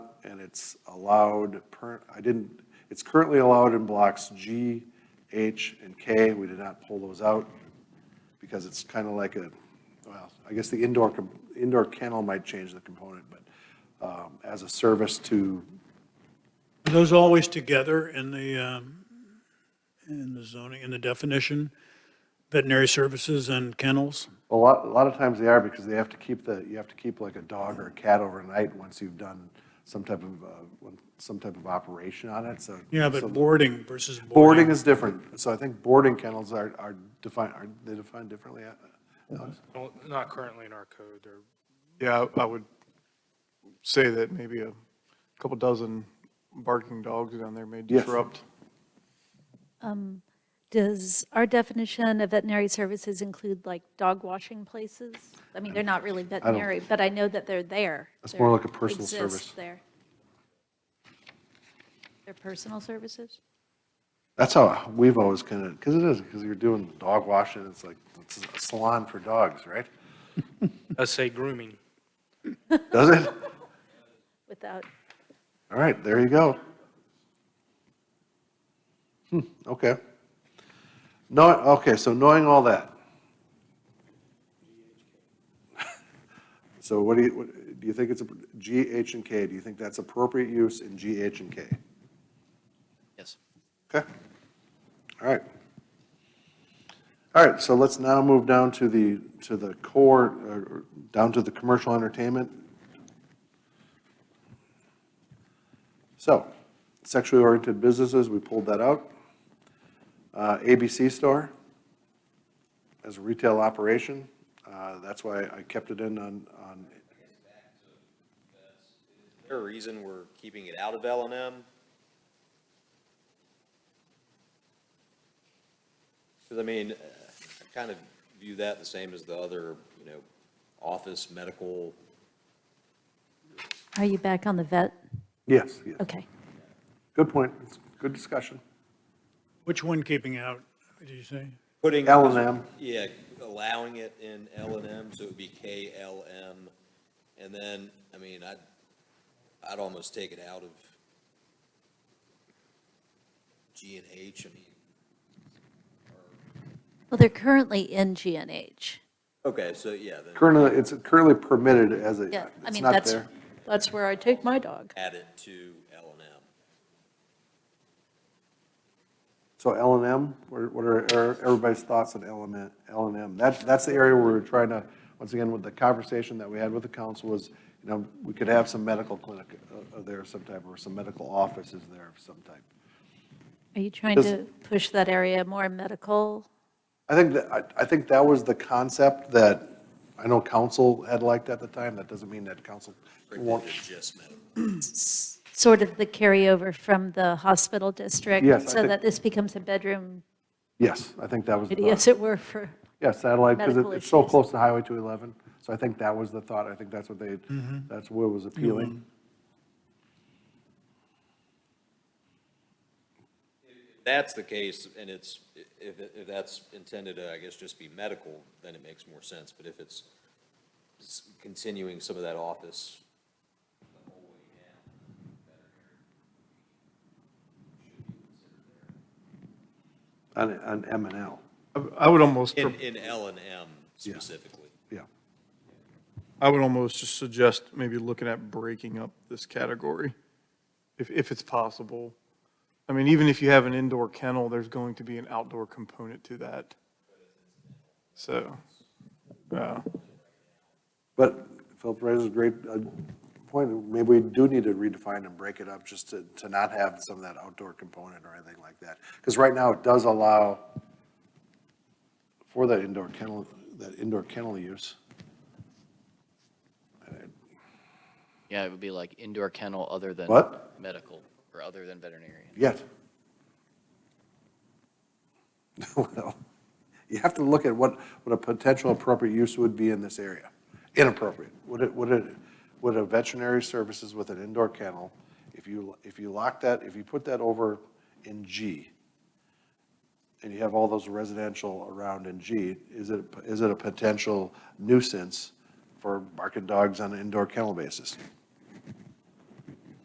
it's allowed per, I didn't, it's currently allowed in blocks G, H, and K. We did not pull those out because it's kind of like a, well, I guess the indoor, com- indoor kennel might change the component, but um, as a service to, Are those always together in the, um, in the zoning, in the definition? Veterinary services and kennels? a lot, a lot of times they are because they have to keep the, you have to keep like a dog or a cat overnight once you've done some type of, uh, one- some type of operation on it, so. Yeah, so- but boarding versus Boarding boarding. is different, so I think boarding kennels are, are defined, are they defined differently? Alex? No, Not currently in our code, or, Yeah, I I would say that maybe a couple dozen barking dogs down there may Yes. disrupt. Does our definition of veterinary services include like dog washing places? I mean, they're not really veterinary, but I know that they're there. That's more They're- like a personal exist service. there. They're personal services? That's how we've always kind of, because it is, because you're doing dog washing, it's like, it's a salon for dogs, right? let's uh, say grooming. Does it? Without, All right, there you go. Hmm, okay. No, okay, so knowing all that. So what do you, what- do you think it's, a- G, H, and K, do you think that's appropriate use in G, H, and K? Yes. Okay. All right. All right, so let's now move down to the, to the core, uh, down to the commercial entertainment. So, sexually oriented businesses, we pulled that out. Uh, ABC store as a retail operation, uh, that's why I kept it in on, on, Is there a reason we're keeping it out of L and M? Because I mean, uh, I kind of view that the same as the other, you know, office, medical, are you back on the vet? yes, yes. Okay. Good point, It's good discussion. Which one keeping out, did you say? putting. L and M. Yeah, allowing it in L and M, so it would be K L M. And then, I mean, I'd, I'd almost take it out of G and H, I mean. Well, they're currently in GNH. Okay, so yeah, then Currently, it's currently permitted as a, Yeah, I it's mean, not that's, there. that's where I take my dog. add it to L and M. So L and M, what what are er- everybody's thoughts on L and L and M? That, that's the area where we're trying to, once again, with the conversation that we had with the council was, you know, we could have some medical clinic uh, uh, there of some type, or some medical offices there of some type. Are you trying Does- to push that area more medical? I think that, I, I think that was the concept that, I know council had liked at the time, that doesn't mean that council won't. It's just medical. Sort of the carryover from the hospital district? Yes, I So think- that this becomes a bedroom, Yes, I think that was the thought. as it were, for Yeah, satellite, because Medical it's so issues. close to Highway 211, so I think that was the thought, I think that's what they, that's what was appealing. that's the case, and it's, if, if that's intended to, I guess, just be medical, then it makes more sense, but if it's s- continuing some of that office. On, on M and L, I- I would almost, In, pro- in L and M specifically. yeah. I would almost just suggest maybe looking at breaking up this category, if, if it's possible. I mean, even if you have an indoor kennel, there's going to be an outdoor component to that. So, yeah. But Philip raises a great uh, point, maybe we do need to redefine and break it up just to, to not have some of that outdoor component or anything like that. Because right now, it does allow for that indoor kennel, that indoor kennel use. Yeah, it would be like indoor kennel other than. What? Medical or other than veterinarian. Yet. Well, you have to look at what, what a potential appropriate use would be in this area. Inappropriate. Would it, would it, would a veterinary services with an indoor kennel, if you, if you lock that, if you put that over in G, and you have all those residential around in G, is it, is it a potential nuisance for barking dogs on an indoor kennel basis?